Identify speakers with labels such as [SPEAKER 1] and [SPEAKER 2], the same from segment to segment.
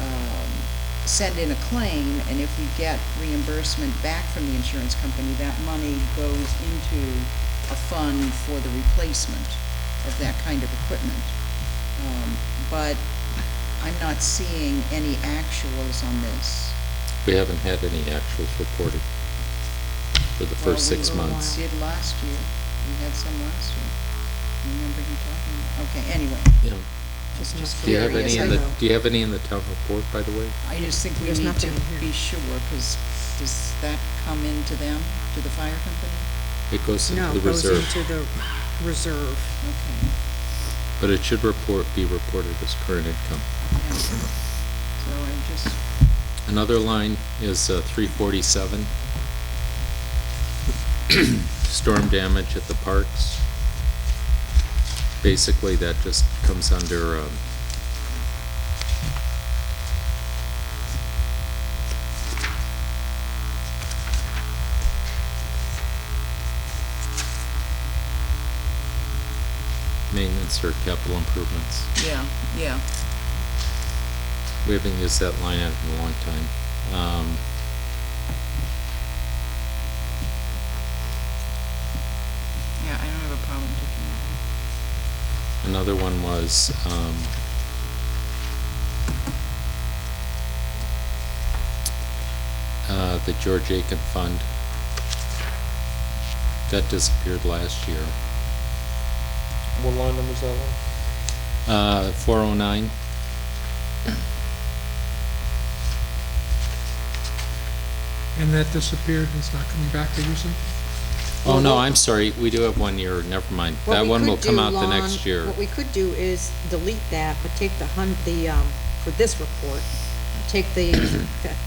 [SPEAKER 1] um, send in a claim, and if we get reimbursement back from the insurance company, that money goes into a fund for the replacement of that kind of equipment. Um, But I'm not seeing any actuals on this.
[SPEAKER 2] We haven't had any actuals reported for the first
[SPEAKER 1] Well, we
[SPEAKER 2] six
[SPEAKER 1] were-
[SPEAKER 2] months.
[SPEAKER 1] Did last year, we had some last year. I remember you talking, okay, anyway,
[SPEAKER 2] Yeah.
[SPEAKER 1] just just
[SPEAKER 2] Do you have
[SPEAKER 1] curious.
[SPEAKER 2] any in
[SPEAKER 1] I-
[SPEAKER 2] the, do you have any in the town report, by the way?
[SPEAKER 1] I just think we
[SPEAKER 3] There's
[SPEAKER 1] need
[SPEAKER 3] nothing
[SPEAKER 1] to
[SPEAKER 3] in here.
[SPEAKER 1] be sure, because does that come into them, to the fire company?
[SPEAKER 2] It goes
[SPEAKER 3] No,
[SPEAKER 2] into the
[SPEAKER 3] it goes
[SPEAKER 2] reserve,
[SPEAKER 3] into the reserve.
[SPEAKER 1] Okay,
[SPEAKER 2] but it should report, be reported as current income.
[SPEAKER 1] yeah. So I'm just,
[SPEAKER 2] Another line is uh, three forty-seven. Storm damage at the parks. Basically, that just comes under, um, maintenance or capital improvements.
[SPEAKER 1] yeah, yeah.
[SPEAKER 2] We haven't used that line item in a long time. Um,
[SPEAKER 1] Yeah, I don't have a problem taking that.
[SPEAKER 2] Another one was, um, uh, the George Aiken Fund. That disappeared last year.
[SPEAKER 4] What line number is that one?
[SPEAKER 2] Uh, four oh nine.
[SPEAKER 5] And that disappeared, and it's not coming back, did you say?
[SPEAKER 2] Oh, no, I'm sorry, we do have one year, never mind.
[SPEAKER 3] What
[SPEAKER 2] That
[SPEAKER 3] we
[SPEAKER 2] one
[SPEAKER 3] could
[SPEAKER 2] will come
[SPEAKER 3] do
[SPEAKER 2] out the
[SPEAKER 3] long-
[SPEAKER 2] next year.
[SPEAKER 3] What we could do is delete that, but take the hun, the, um, for this report, take the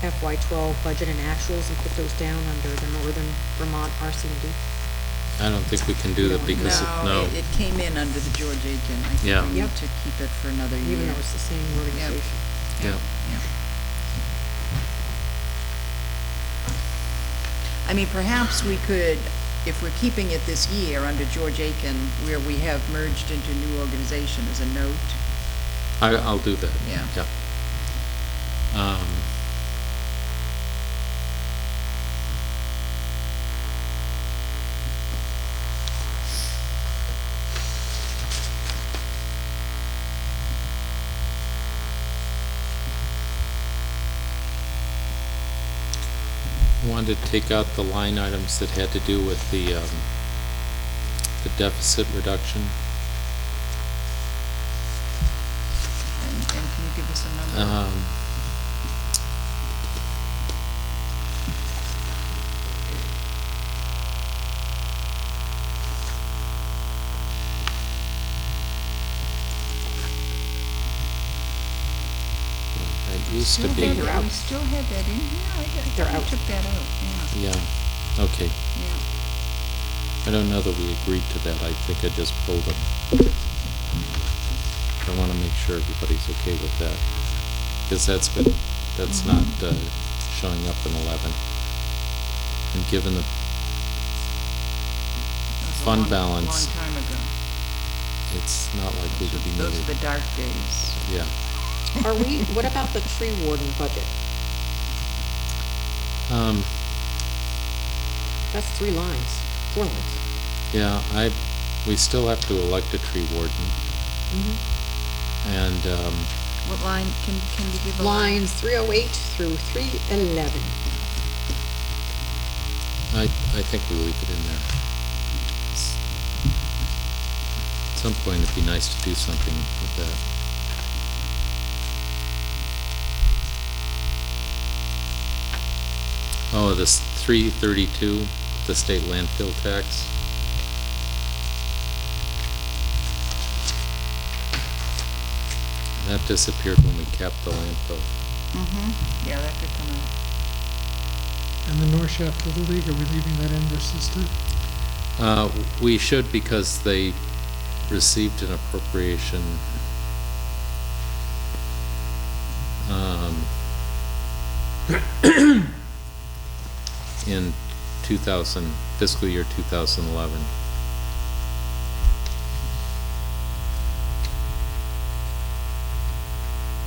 [SPEAKER 3] FY twelve budget and actuals and put those down under the Northern Vermont RCD.
[SPEAKER 2] I don't think we can do that because, it- no.
[SPEAKER 1] it- It came in under the George Aiken. I
[SPEAKER 2] Yeah.
[SPEAKER 1] think we need
[SPEAKER 3] Yep.
[SPEAKER 1] to keep it for another year.
[SPEAKER 3] even though it's the same organization.
[SPEAKER 2] Yeah.
[SPEAKER 1] yeah. I mean, perhaps we could, if we're keeping it this year under George Aiken, where we have merged into new organization as a note,
[SPEAKER 2] I, I'll do that.
[SPEAKER 1] Yeah.
[SPEAKER 2] Yeah. Um, Wanted to take out the line items that had to do with the, um, the deficit reduction.
[SPEAKER 1] and, and can you give us a number?
[SPEAKER 2] Um, That used to
[SPEAKER 1] Still
[SPEAKER 2] be,
[SPEAKER 1] had-
[SPEAKER 3] They're out.
[SPEAKER 1] We still had that in here? I- I
[SPEAKER 3] They're
[SPEAKER 1] thought we
[SPEAKER 3] out.
[SPEAKER 1] Took that out, yeah,
[SPEAKER 2] yeah, okay.
[SPEAKER 1] yeah.
[SPEAKER 2] I don't know that we agreed to that, I think I just pulled them. I want to make sure everybody's okay with that, because that's been, that's not uh, showing up in 11. And given the,
[SPEAKER 1] That was a
[SPEAKER 2] Fund
[SPEAKER 1] long-
[SPEAKER 2] balance. Mm-hmm.
[SPEAKER 1] Long time ago.
[SPEAKER 2] it's not likely to be
[SPEAKER 1] Those are
[SPEAKER 2] needed.
[SPEAKER 1] the dark days.
[SPEAKER 2] Yeah.
[SPEAKER 3] Are we, what about the tree warden budget?
[SPEAKER 2] Um,
[SPEAKER 3] That's three lines, four lines.
[SPEAKER 2] Yeah, I, we still have to elect a tree warden.
[SPEAKER 1] Mm-hmm.
[SPEAKER 2] And, um,
[SPEAKER 1] What line, can, can you give a line?
[SPEAKER 3] Lines three oh eight through three eleven.
[SPEAKER 2] I, I think we leave it in there. S- At some point, it'd be nice to do something with that. Oh, this three thirty-two, the state landfill tax. That disappeared when we capped the landfill.
[SPEAKER 1] Mm-hmm, yeah, that could come out.
[SPEAKER 5] And the North Shafter of the League, are we leaving that in versus the,
[SPEAKER 2] Uh, we should because they received an appropriation. um, In two thousand, fiscal year two thousand eleven.